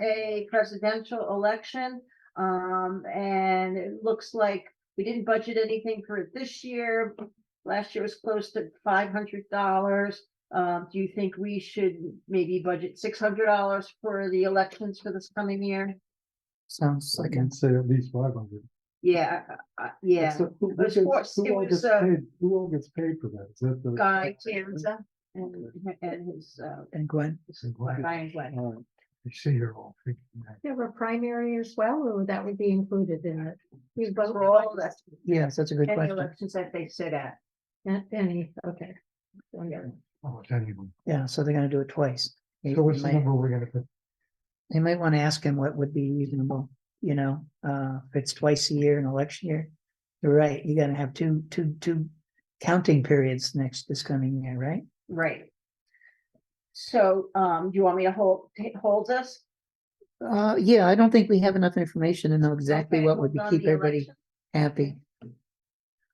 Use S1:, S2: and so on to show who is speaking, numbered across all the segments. S1: a presidential election. Um, and it looks like we didn't budget anything for it this year. Last year was close to five hundred dollars. Um, do you think we should maybe budget six hundred dollars for the elections for this coming year?
S2: Sounds
S3: I
S2: like
S3: can
S2: it's
S3: say at least five hundred.
S1: Yeah, uh, uh, yeah, was forced- it
S3: Who all
S1: was,
S3: gets
S1: uh,
S3: paid, who all gets paid for that? Is that the?
S1: Guy Tanza and, and his, uh,
S2: and Gwen.
S3: I'm glad-
S1: Ryan Glenn.
S3: all right. I see you're all thinking that.
S4: There were primary as well, or that would be included in it? You vote
S1: For all the
S2: Yes, that's a good
S1: any
S2: question.
S1: elections that they sit at.
S4: Not any, okay. Okay.
S3: Oh, it's anyone.
S2: Yeah, so they're gonna do it twice. They
S3: So what's the
S2: might,
S3: number we're gonna put?
S2: they might want to ask him what would be reasonable, you know, uh, if it's twice a year in election year. You're right, you gotta have two, two, two counting periods next, this coming year, right?
S1: Right. So, um, do you want me to hold, ta- hold this?
S2: Uh, yeah, I don't think we have enough information to know exactly
S1: Okay,
S2: what would
S1: hold
S2: be-
S1: on
S2: keep
S1: the
S2: everybody
S1: election.
S2: happy.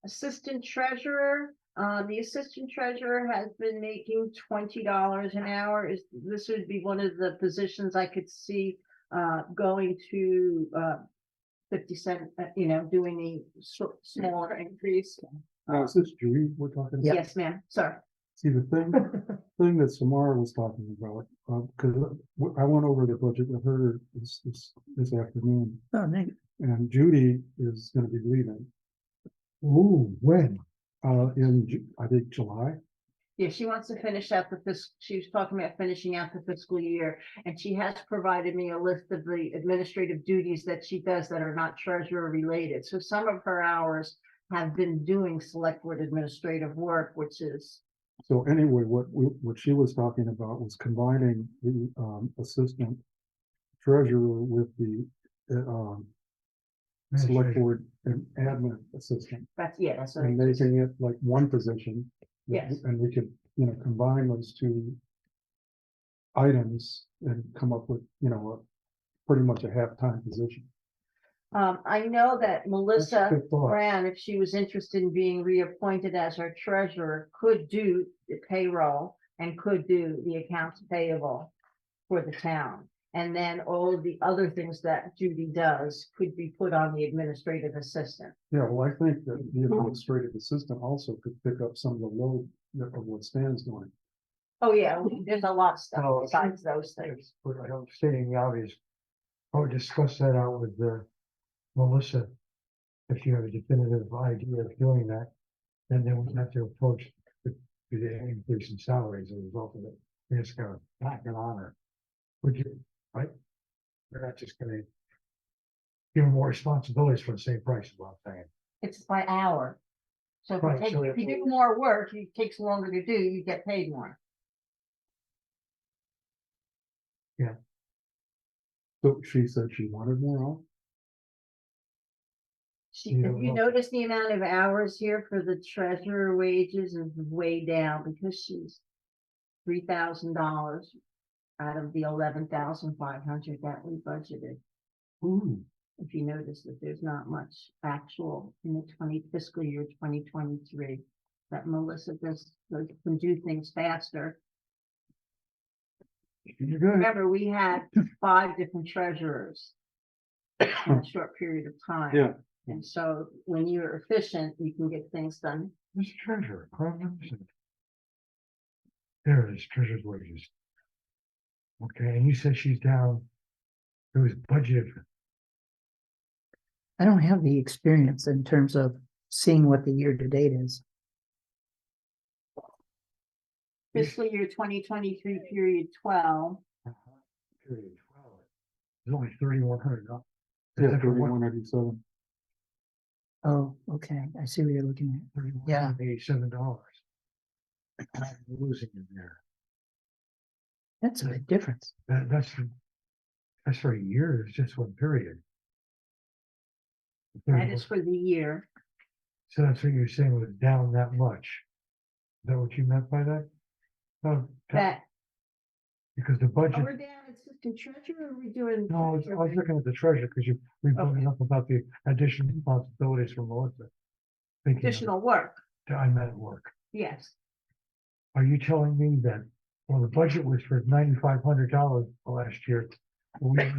S1: Assistant treasurer, um, the assistant treasurer has been making twenty dollars an hour. Is, this would be one of the positions I could see uh, going to uh, fifty cent, uh, you know, doing a sor- smaller increase.
S3: Now, Oh, is this Julie we're talking? about?
S1: Yes, ma'am, sorry.
S3: See, the thing, thing that Samara was talking about, uh, cause I went over the budget with her this, this, this afternoon.
S2: Oh, nice.
S3: and Judy is gonna be leaving. Ooh, when? Uh, in, Ju- I think July.
S1: Yeah, she wants to finish out the fiscal, she was talking about finishing out the fiscal year, and she has provided me a list of the administrative duties that she does that are not treasurer related. So some of her hours have been doing select board administrative work, which is,
S3: So anyway, what we, what she was talking about was combining the, um, assistant treasurer with the, uh, um, select board and admin assistant.
S1: that's, yeah, that's. what
S3: and
S1: I-
S3: making it like one position. that-
S1: Yes.
S3: And we could, you know, combine those two items and come up with, you know, a, pretty much a half-time position.
S1: Um, I know that
S3: That's a
S1: Melissa.
S3: good thought.
S1: Brown, if she was interested in being reappointed as our treasurer, could do the payroll and could do the accounts payable for the town. And then all of the other things that Judy does could be put on the administrative assistant.
S3: Yeah, well, I think that the
S1: Mm-hmm.
S3: administrative assistant also could pick up some of the load that- of what Stan's doing.
S1: Oh, yeah, there's a lot of stuff
S5: Oh, okay.
S1: besides those things.
S5: But I don't stating the obvious. I would discuss that out with uh, Melissa. If you have a definitive idea of doing that, then they would have to approach the, the increase in salaries as a result of it. We're just gonna back it on her. Would you, right? We're not just gonna give her more responsibilities for the same price, is what I'm saying.
S1: It's by hour. So if you
S5: Right,
S1: take-
S5: so
S1: if you
S5: if-
S1: do more work, it takes longer to do, you get paid more.
S3: So she said she wanted more off.
S1: She,
S5: Yeah,
S1: if you
S5: well-
S1: notice the amount of hours here for the treasurer wages is way down because she's three thousand dollars out of the eleven thousand five hundred that we budgeted.
S3: Ooh.
S1: If you notice that there's not much actual in the twenty fiscal year twenty twenty-three. That Melissa does, does- can do things faster.
S3: You're good.
S1: Remember, we had five different treasurers in a short period of time.
S3: Yeah.
S1: And so when you're efficient, you can get things done
S5: Mr. Treasurer, Chrome number seven. There it is, treasurer's wages. Okay, and you said she's down. It was budgeted for
S2: I don't have the experience in terms of seeing what the year to date is.
S5: Yes.
S1: fiscal year twenty twenty-three period twelve.
S5: period twelve. It's only thirty-one hundred dollars.
S3: Yeah, thirty-one ninety-seven.
S2: Oh, okay, I see what you're looking at. Yeah.
S5: Thirty-one, eighty-seven dollars. I'm losing it there.
S2: That's a big difference.
S5: That, that's, for- that's for a year, it's just one period.
S1: That is for the year.
S5: So that's what you're saying was down that much. Is that what you meant by that? No,
S1: That,
S5: Because the
S1: oh,
S5: budget.
S1: we're down assistant treasurer, or are we doing?
S5: No, I was I was looking at the treasure because you, we brought it up about the additional responsibilities for Melissa. Thinking of it,
S1: Additional work,
S5: that I'm at work.
S1: yes.
S5: Are you telling me that, well, the budget was for ninety-five hundred dollars last year, we